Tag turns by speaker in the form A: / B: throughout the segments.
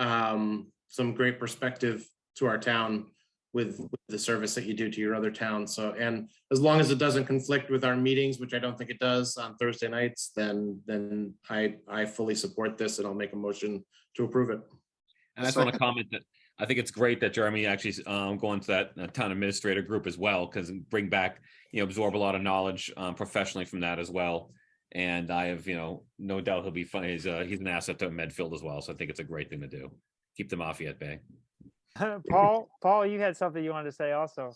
A: um, some great perspective to our town with with the service that you do to your other towns. So, and as long as it doesn't conflict with our meetings, which I don't think it does on Thursday nights, then, then I, I fully support this and I'll make a motion to approve it.
B: And I just want to comment that I think it's great that Jeremy actually um, going to that uh, town administrator group as well, because bring back, you know, absorb a lot of knowledge um, professionally from that as well. And I have, you know, no doubt he'll be fun. He's uh, he's an asset to Medfield as well. So I think it's a great thing to do. Keep the mafia at bay.
C: Paul, Paul, you had something you wanted to say also.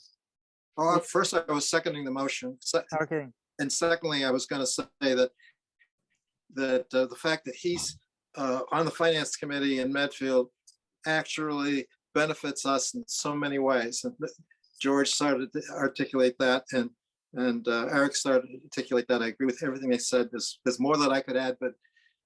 D: Well, at first I was seconding the motion, se-
C: Okay,
D: and secondly, I was going to say that that uh, the fact that he's uh, on the finance committee in Medfield actually benefits us in so many ways. And th- George started to articulate that, and and uh, Eric started to articulate that. I agree with everything they said. There's there's more that I could add, but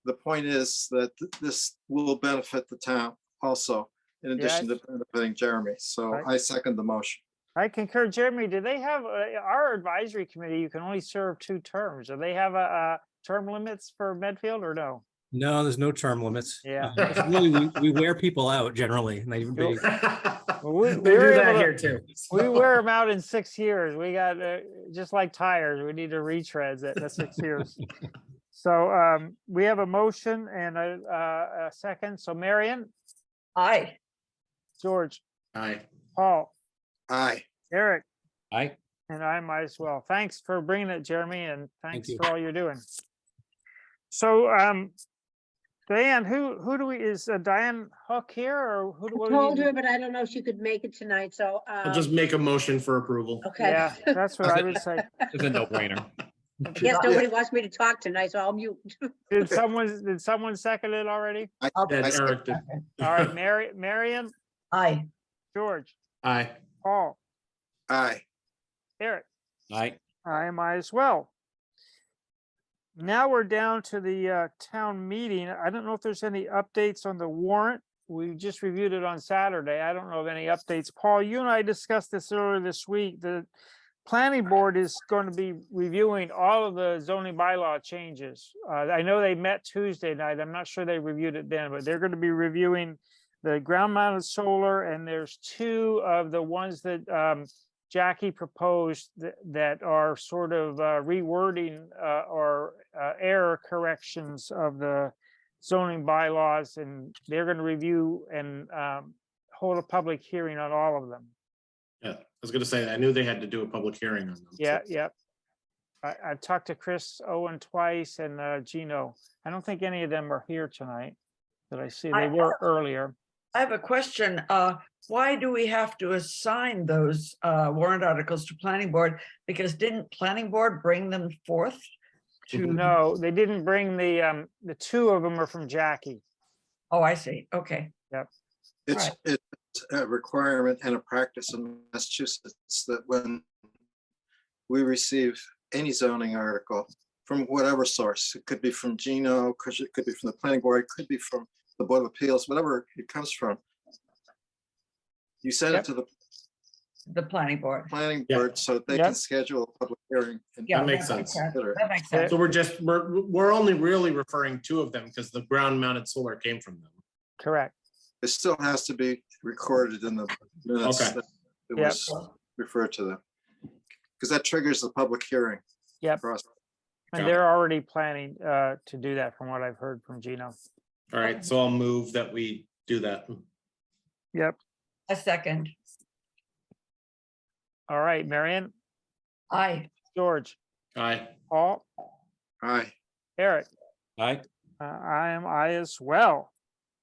D: the point is that th- this will benefit the town also, in addition to benefiting Jeremy. So
C: Right.
D: I second the motion.
C: I concur. Jeremy, do they have, uh, our advisory committee, you can only serve two terms. Do they have a, a term limits for Medfield or no?
E: No, there's no term limits.
C: Yeah.
E: Uh, Really, we, we wear people out generally. and they-
C: You'll-
E: they-
C: Well, we,
A: They
C: we
A: do
C: were
A: that
C: able
A: here too.
C: to, we wear them out in six years. We got, uh, just like tires, we need to retreads at, at six years. So, um, we have a motion and a, uh, a second. So Marion,
F: Aye.
C: George,
A: Aye.
C: Paul,
D: Aye.
C: Eric,
B: I
C: And I might as well. Thanks for bringing it, Jeremy, and thanks
E: you.
C: for all you're doing. So, um, Diane, who, who do we, is uh, Diane Hook here or who? do
F: I
C: what do we
F: Told
C: do?
F: her, but I don't know if she could make it tonight, so,
A: I'll
F: uh,
A: just make a motion for approval.
F: okay.
C: Yeah, that's what I would say.
B: it's a no brainer.
F: Yes, nobody wants me to talk tonight, so I'll mute.
C: Did someone, did someone second it already?
D: I-
A: That
D: I second-
A: Eric did.
C: All right, Mary, Marion,
F: Aye.
C: George,
A: Aye.
C: Paul,
D: Aye.
C: Eric.
B: I
C: I might as well. Now we're down to the uh, town meeting. I don't know if there's any updates on the warrant. We just reviewed it on Saturday. I don't know of any updates. Paul, you and I discussed this earlier this week. The planning board is going to be reviewing all of the zoning bylaw changes. Uh, I know they met Tuesday night. I'm not sure they reviewed it then, but they're going to be reviewing the ground mounted solar and there's two of the ones that um, Jackie proposed th- that are sort of uh, rewording uh, or uh, error corrections of the zoning bylaws, and they're going to review and um, hold a public hearing on all of them.
A: Yeah, I was gonna say, I knew they had to do a public hearing on them. so-
C: Yeah, yep. I, I've talked to Chris Owen twice and uh, Gino. I don't think any of them are here tonight that I see. They
G: I-
C: were earlier.
G: I have a question. Uh, why do we have to assign those uh warrant articles to planning board? Because didn't planning board bring them forth? To,
C: No, they didn't bring the, um, the two of them are from Jackie.
G: oh, I see. Okay,
D: It's, it's a requirement and a practice in Massachusetts that when we receive any zoning article from whatever source, it could be from Gino, because it could be from the planning board, it could be from the Board of Appeals, whatever it comes from. You send
C: Yep.
D: it to the
G: the planning board.
D: planning
A: Yeah.
D: board so they
C: Yeah.
D: can schedule a public hearing. and
G: Yeah,
A: makes sense.
D: consider it.
G: That makes sense.
A: So we're just, we're, we're only really referring two of them because the ground mounted solar came from them.
C: Correct.
D: It still has to be recorded in the minutes
A: Okay.
D: that It
C: Yep.
D: was referred to them. Because that triggers the public hearing
C: Yep.
D: process.
A: Got
C: And
A: it.
C: they're already planning uh, to do that from what I've heard from Gino.
A: All right, so I'll move that we do that.
C: Yep.
G: A second.
C: All right, Marion,
G: Aye.
C: George,
A: Aye.
C: Paul,
D: Aye.
C: Eric,
B: I
C: uh, I am I as well.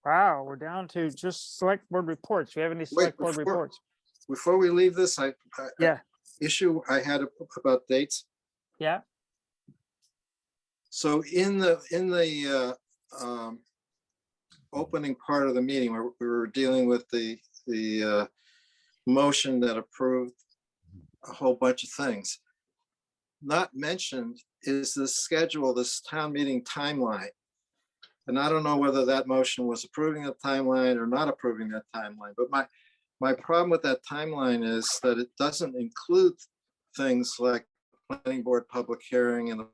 C: Wow, we're down to just select board reports. Do you have any select board
D: before-
C: reports?
D: Before we leave this, I. I-
C: Yeah.
D: Issue I had about dates.
C: Yeah.
D: So in the, in the uh, um, opening part of the meeting, where we were dealing with the, the uh, motion that approved a whole bunch of things. Not mentioned is the schedule, this town meeting timeline. And I don't know whether that motion was approving the timeline or not approving that timeline, but my, my problem with that timeline is that it doesn't include things like planning board public hearing and the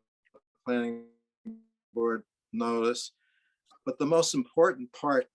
D: planning board notice. But the most important part